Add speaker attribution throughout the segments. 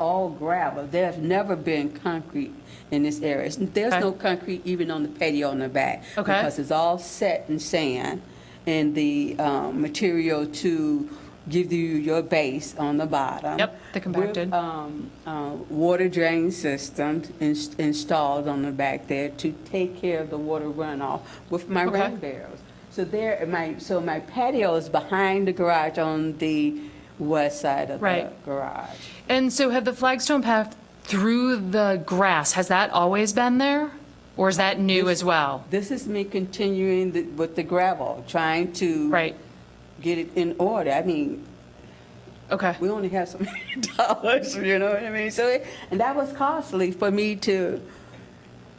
Speaker 1: all gravel. There's never been concrete in this area. It's- There's
Speaker 2: Okay.
Speaker 1: no concrete even on the patio in the back.
Speaker 2: Okay.
Speaker 1: Because it's all set in sand and the um, material to give you your base on the bottom.
Speaker 2: Yep, the compacted.
Speaker 1: With, um, uh, Water drain systems ins- installed on the back there to take care of the water runoff with my
Speaker 2: Okay.
Speaker 1: rain barrels. So there, my, so my patio is behind the garage on the west side of the
Speaker 2: Right.
Speaker 1: garage.
Speaker 2: And so had the flagstone path through the grass, has that always been there? Or is that new as well?
Speaker 1: This is me continuing the- with the gravel, trying to.
Speaker 2: Right,
Speaker 1: Get it in order. I mean,
Speaker 2: okay.
Speaker 1: we only have so many dollars, you know what I mean? So, it- and that was costly for me to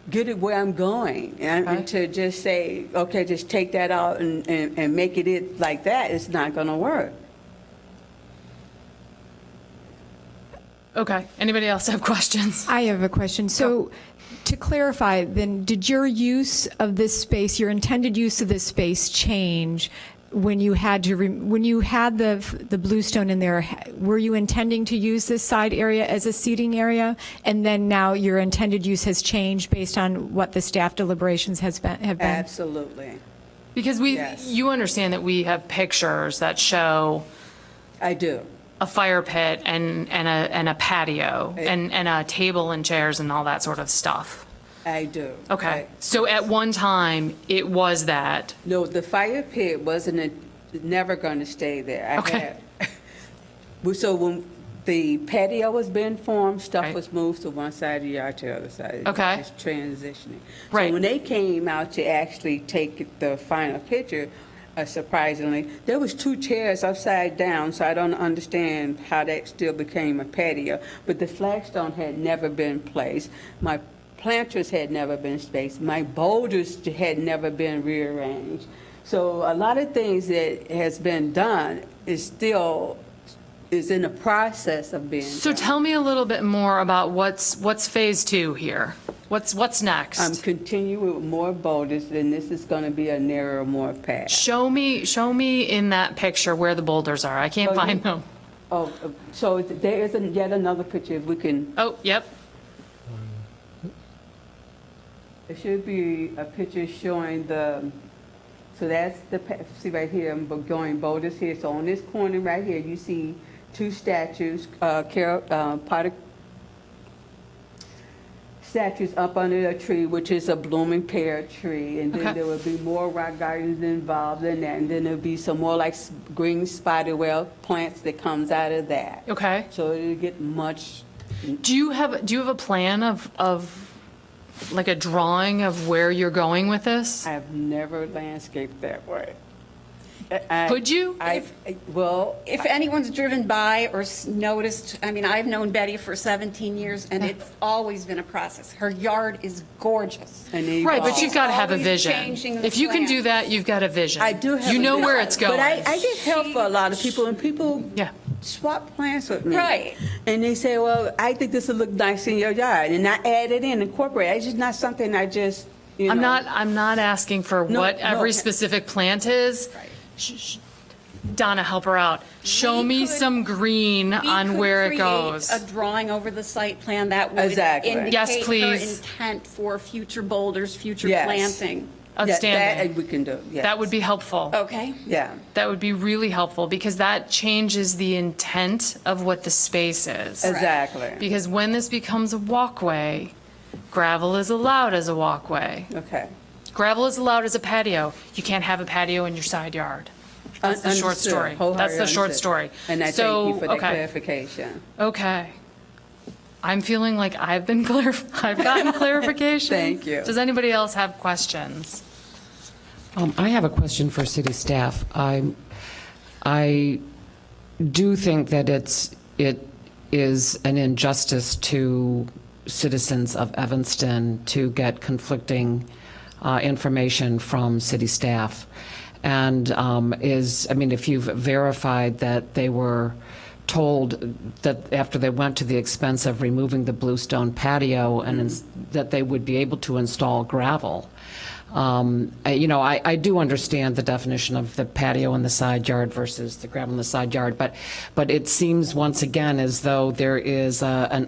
Speaker 1: get it where I'm going. And,
Speaker 2: Uh-huh.
Speaker 1: and to just say, okay, just take that out and, and, and make it it like that, it's not gonna work.
Speaker 2: Okay, anybody else have questions?
Speaker 3: I have a question. So to clarify, then, did your use of this space, your intended use of this space change when you had to, re- when you had the, the bluestone in there? ha- Were you intending to use this side area as a seating area? And then now your intended use has changed based on what the staff deliberations has been, have been?
Speaker 1: Absolutely.
Speaker 2: Because we,
Speaker 1: Yes.
Speaker 2: you understand that we have pictures that show
Speaker 1: I do.
Speaker 2: a fire pit and, and a, and a patio and, and a table and chairs and all that sort of stuff.
Speaker 1: I do.
Speaker 2: Okay,
Speaker 1: I-
Speaker 2: so at one time, it was that,
Speaker 1: No, the fire pit wasn't, a- never going to stay there. I
Speaker 2: Okay.
Speaker 1: had- Well, So when the patio was being formed, stuff
Speaker 2: Right.
Speaker 1: was moved to one side of the yard to the other side.
Speaker 2: Okay.
Speaker 1: Just transitioning.
Speaker 2: Right.
Speaker 1: So when they came out to actually take the final picture, uh, surprisingly, there was two chairs upside down, so I don't understand how that still became a patio. But the flagstone had never been placed. My planters had never been spaced. My boulders had never been rearranged. So a lot of things that has been done is still, is in the process of being
Speaker 2: so
Speaker 1: done.
Speaker 2: tell me a little bit more about what's, what's phase two here? What's, what's
Speaker 1: I'm
Speaker 2: next?
Speaker 1: continuing with more boulders, and this is going to be a narrower, more path.
Speaker 2: Show me, show me in that picture where the boulders are, I can't
Speaker 1: Oh, you-
Speaker 2: find them.
Speaker 1: Oh, uh, so there is an- yet another picture, if we can,
Speaker 2: Oh, yep,
Speaker 1: there should be a picture showing the, so that's the, pa- see right here, I'm going boulders here. So on this corner right here, you see two statues, uh, Carol, uh, Potter statues up under a tree, which is a blooming pear tree. And
Speaker 2: Okay.
Speaker 1: then there will be more rock gardens involved in that. And then there'll be some more like s- green spiderweb plants that comes out of that.
Speaker 2: okay.
Speaker 1: So it'll get much,
Speaker 2: Do you have, do you have a plan of, of, like a drawing of where you're going with this?
Speaker 1: I have never landscaped that way. I- I-
Speaker 2: Could you?
Speaker 1: I, well,
Speaker 4: If anyone's driven by or s- noticed, I mean, I've known Betty for 17 years, and it's always been a process. Her yard is gorgeous.
Speaker 1: and they
Speaker 2: Right, but
Speaker 1: evolve.
Speaker 2: you've got to have a
Speaker 4: Always
Speaker 2: vision.
Speaker 4: changing the
Speaker 2: If you can do
Speaker 4: plans.
Speaker 2: that, you've got a vision.
Speaker 1: I do have.
Speaker 2: You
Speaker 1: a
Speaker 2: know
Speaker 1: bit-
Speaker 2: where it's going.
Speaker 1: But I, I get help for a lot of people, and people
Speaker 2: Yeah.
Speaker 1: swap plants with me.
Speaker 4: Right.
Speaker 1: And they say, well, I think this will look nice in your yard, and I add it in, incorporate. It's just not something I just, you know.
Speaker 2: I'm not, I'm not asking for
Speaker 1: No,
Speaker 2: what
Speaker 1: no.
Speaker 2: every specific plant is. Sh- sh- Donna, help her out. Show
Speaker 4: We
Speaker 2: me
Speaker 4: could-
Speaker 2: some green
Speaker 4: We
Speaker 2: on
Speaker 4: could
Speaker 2: where it
Speaker 4: create
Speaker 2: goes.
Speaker 4: A drawing over the site plan that would
Speaker 1: Exactly. Yes,
Speaker 4: indicate her
Speaker 2: please.
Speaker 4: intent for future boulders, future
Speaker 1: Yes.
Speaker 4: planting.
Speaker 1: Yeah, that
Speaker 2: Outstanding.
Speaker 1: We can do, yes.
Speaker 2: That would be helpful.
Speaker 4: Okay?
Speaker 1: Yeah.
Speaker 2: That would be really helpful because that changes the intent of what the space is.
Speaker 1: Exactly.
Speaker 2: Because when this becomes a walkway, gravel is allowed as a walkway.
Speaker 1: Okay.
Speaker 2: Gravel is allowed as a patio. You can't have a patio in your side yard. That's the
Speaker 1: Un-
Speaker 2: short
Speaker 1: understood.
Speaker 2: story. That's
Speaker 1: Wholeheartedly
Speaker 2: the short
Speaker 1: understood.
Speaker 2: story.
Speaker 1: And I
Speaker 2: So,
Speaker 1: thank you for that
Speaker 2: okay.
Speaker 1: clarification.
Speaker 2: Okay. I'm feeling like I've been clar, I've gotten clarification.
Speaker 1: Thank you.
Speaker 2: Does anybody else have questions?
Speaker 5: Um, I have a question for city staff. I, I do think that it's, it is an injustice to citizens of Evanston to get conflicting uh, information from city staff. And um, is, I mean, if you've verified that they were told that after they went to the expense of removing the bluestone patio and ins- that they would be able to install gravel. Um, I- You know, I, I do understand the definition of the patio in the side yard versus the gravel in the side yard, but, but it seems once again as though there is a- an